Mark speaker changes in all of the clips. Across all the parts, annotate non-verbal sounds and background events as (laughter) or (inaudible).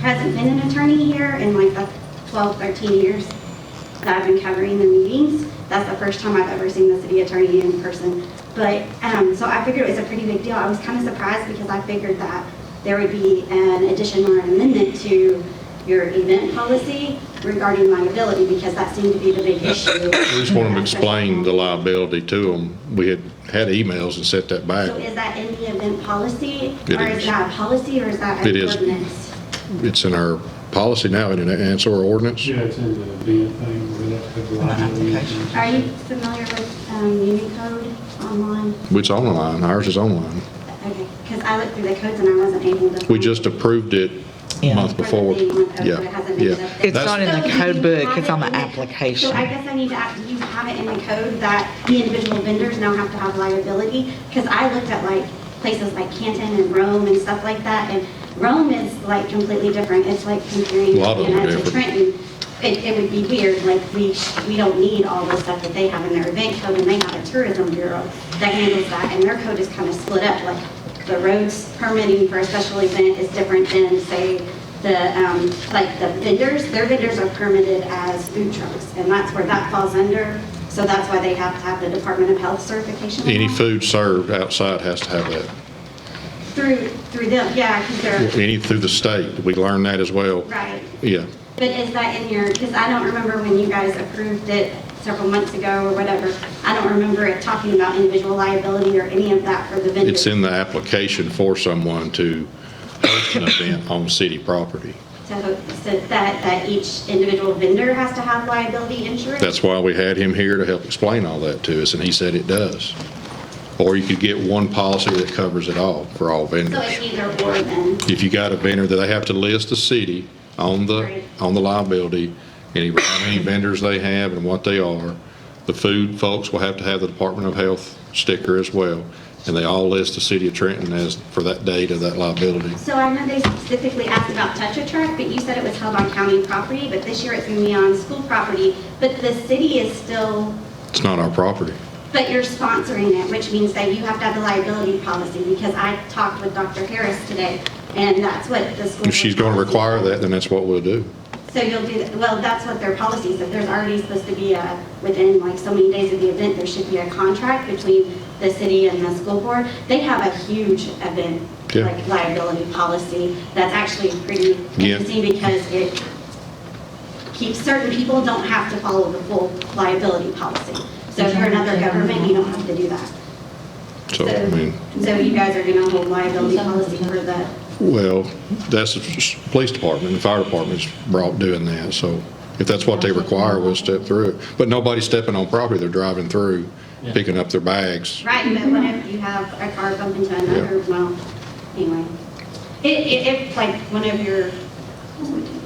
Speaker 1: hasn't been an attorney here in like the 12, 13 years that I've been covering the meetings. That's the first time I've ever seen the city attorney in person. But, um, so I figured it was a pretty big deal. I was kind of surprised because I figured that there would be an addition or an amendment to your event policy regarding liability because that seemed to be the big
Speaker 2: (coughs)
Speaker 1: issue.
Speaker 2: We just want to explain the liability to them. We had had emails and sent that
Speaker 1: So
Speaker 2: back.
Speaker 1: is that in the event policy?
Speaker 2: It
Speaker 1: Or is
Speaker 2: is.
Speaker 1: that a policy or is that
Speaker 2: It
Speaker 1: an
Speaker 2: is.
Speaker 1: ordinance?
Speaker 2: It's in our policy now, isn't it? And it's our ordinance.
Speaker 3: Yeah, it's in the event thing where that could liability.
Speaker 1: Are you familiar with um, Unicode online?
Speaker 2: It's online. Ours is online.
Speaker 1: Okay, because I looked through the codes and I wasn't able to.
Speaker 2: We just approved it
Speaker 4: Yeah.
Speaker 2: month before. Yeah, yeah.
Speaker 4: It's
Speaker 2: That's-
Speaker 4: not in
Speaker 1: So
Speaker 4: the
Speaker 1: do you
Speaker 4: code book,
Speaker 1: have
Speaker 4: it's
Speaker 1: it
Speaker 4: on the
Speaker 1: in
Speaker 4: application.
Speaker 1: So I guess I need to ask, do you have it in the code that the individual vendors now have to have liability? Because I looked at like places like Canton and Rome and stuff like that, and Rome is like completely different. It's like comparing
Speaker 2: A lot of them are
Speaker 1: Atlanta to
Speaker 2: different.
Speaker 1: Trenton. It, it would be weird, like we, sh- we don't need all the stuff that they have in their event code, and they have a tourism bureau that handles that, and their code is kind of split up, like the roads permitting for a special event is different than, say, the, um, like the vendors, their vendors are permitted as food trucks, and that's where that falls under, so that's why they have to have the Department of Health certification.
Speaker 2: Any food served outside has to have that.
Speaker 1: Through, through them, yeah, because they're,
Speaker 2: Any through the state. We learned that as well.
Speaker 1: right.
Speaker 2: Yeah.
Speaker 1: But is that in your, because I don't remember when you guys approved it several months ago or whatever, I don't remember it talking about individual liability or any of that for the vendors.
Speaker 2: It's in the application for someone to host an event on city property.
Speaker 1: So, so that, that each individual vendor has to have liability insurance?
Speaker 2: That's why we had him here to help explain all that to us, and he said it does. Or you could get one policy that covers it all for all
Speaker 1: So it's
Speaker 2: vendors.
Speaker 1: either or then?
Speaker 2: If you got a vendor that they have to list the city on the,
Speaker 1: Right.
Speaker 2: on the liability, and how many vendors they have and what they are. The food folks will have to have the Department of Health sticker as well, and they all list the city of Trenton as, for that date of that liability.
Speaker 1: So I know they specifically asked about Tetra Tech, but you said it was held on county property, but this year it's going to be on school property. But the city is still,
Speaker 2: It's not our property.
Speaker 1: but you're sponsoring it, which means that you have to have the liability policy because I talked with Dr. Harris today and that's what the school.
Speaker 2: If she's going to require that, then that's what we'll do.
Speaker 1: So you'll do, well, that's what their policy is, that there's already supposed to be a, within like so many days of the event, there should be a contract between the city and the school board. They have a huge event,
Speaker 2: Yeah.
Speaker 1: like liability policy, that's actually pretty
Speaker 2: Yeah.
Speaker 1: interesting because it keeps, certain people don't have to follow the full liability policy. So if you're another government, you don't have to do that.
Speaker 2: So, I mean.
Speaker 1: So you guys are gonna hold liability policy for the,
Speaker 2: Well, that's the s- police department, the fire department's brought doing that, so if that's what they require, we'll step through it. But nobody's stepping on property, they're driving through, picking up their bags.
Speaker 1: Right, but what if you have a car bump into another, well, anyway. It, it, if like one of your,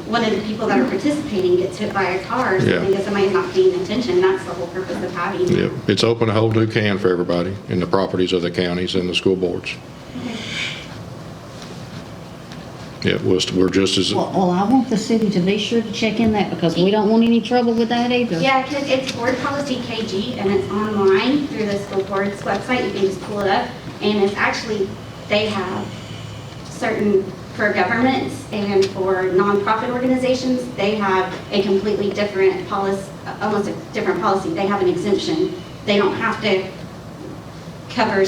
Speaker 1: one of the people that are participating gets hit by a car or
Speaker 2: Yeah.
Speaker 1: something, because somebody's not paying attention, that's the whole purpose of having.
Speaker 2: Yep, it's open a whole new can for everybody, in the properties of the counties and the school boards. Yeah, we're, st- we're just as,
Speaker 5: Well, well, I want the city to be sure to check in that because we don't want any trouble with that either.
Speaker 1: Yeah, because it's board policy KG and it's online through the school board's website. You can just pull it up. And it's actually, they have certain, for governments and for nonprofit organizations, they have a completely different policy, almost a different policy. They have an exemption. They don't have to cover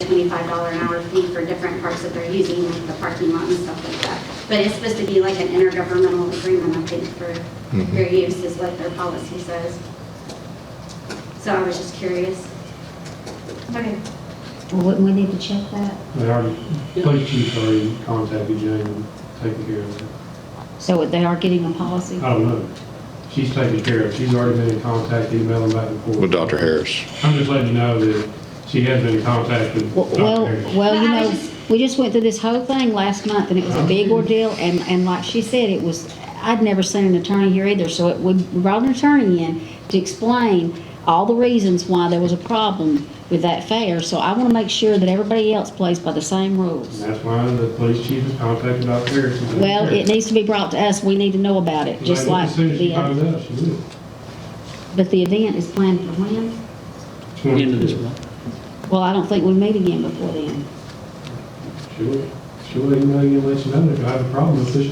Speaker 1: twenty-five dollar an hour fee for different parts that they're using, like the parking lot and stuff like that. But it's supposed to be like an intergovernmental agreement, I think, for your use is what their policy says. So I was just curious. Okay.
Speaker 5: Well, wouldn't we need to check that?
Speaker 3: They already, police chief already contacted Jane and taken care of it.
Speaker 5: So they are getting a policy?
Speaker 3: I don't know. She's taken care of. it. She's already been in contact, emailing back and forth.
Speaker 2: with Dr. Harris.
Speaker 3: I'm just letting you know that she has been in contact with
Speaker 5: Well,
Speaker 3: Dr.
Speaker 5: well,
Speaker 3: Harris.
Speaker 5: well, you
Speaker 1: Well, I
Speaker 5: know,
Speaker 1: was just-
Speaker 5: we just went through this whole thing last month and it was a big ordeal and, and like she said, it was, I'd never seen an attorney here either, so it- we brought an attorney in to explain all the reasons why there was a problem with that fair, so I want to make sure that everybody else plays by the same
Speaker 3: And
Speaker 5: rules.
Speaker 3: that's why the police chief has contacted Dr. Harris. and Dr.
Speaker 5: Well, it
Speaker 3: Harris.
Speaker 5: needs to be brought to us, we need to know about it, just like
Speaker 3: As soon as she
Speaker 5: the,
Speaker 3: finds
Speaker 5: other-
Speaker 3: out, she will.
Speaker 5: but the event is planned for when?
Speaker 6: End of this month.
Speaker 5: Well, I don't think we'll meet again before then.
Speaker 3: She will, she will email you and let you know if I have a problem with this.